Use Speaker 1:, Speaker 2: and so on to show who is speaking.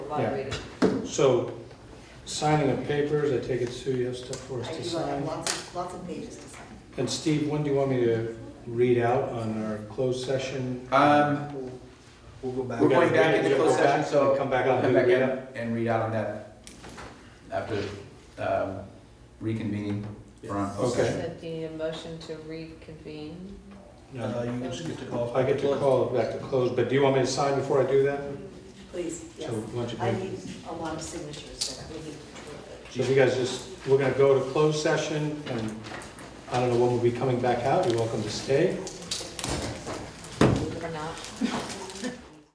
Speaker 1: moderator.
Speaker 2: So, signing of papers, I take it Sue, you have stuff for us
Speaker 1: I
Speaker 2: to
Speaker 1: do have
Speaker 2: sign?
Speaker 1: lots of, lots of pages to sign.
Speaker 2: And Steve, when do you want me to read out on our closed session?
Speaker 3: Um,
Speaker 4: We'll go back.
Speaker 3: We're going back
Speaker 2: Yeah,
Speaker 3: into
Speaker 2: go
Speaker 3: closed
Speaker 2: back
Speaker 3: session, so
Speaker 2: and come back
Speaker 3: we'll
Speaker 2: out and
Speaker 3: come back
Speaker 2: do
Speaker 3: in and read out on that after um, reconvening for on closed
Speaker 2: Okay.
Speaker 3: session.
Speaker 5: So do you need a motion to reconvene?
Speaker 4: Uh,
Speaker 2: No,
Speaker 4: you just get to call.
Speaker 2: I get to call it back to close, but do you want me to sign before I do that?
Speaker 1: Please, yes.
Speaker 2: So why don't you
Speaker 1: I
Speaker 2: bring-
Speaker 1: need a lot of signatures that we need to
Speaker 2: So if you guys just, we're gonna go to closed session, and I don't know when we'll be coming back out, you're welcome to stay.
Speaker 5: Or not?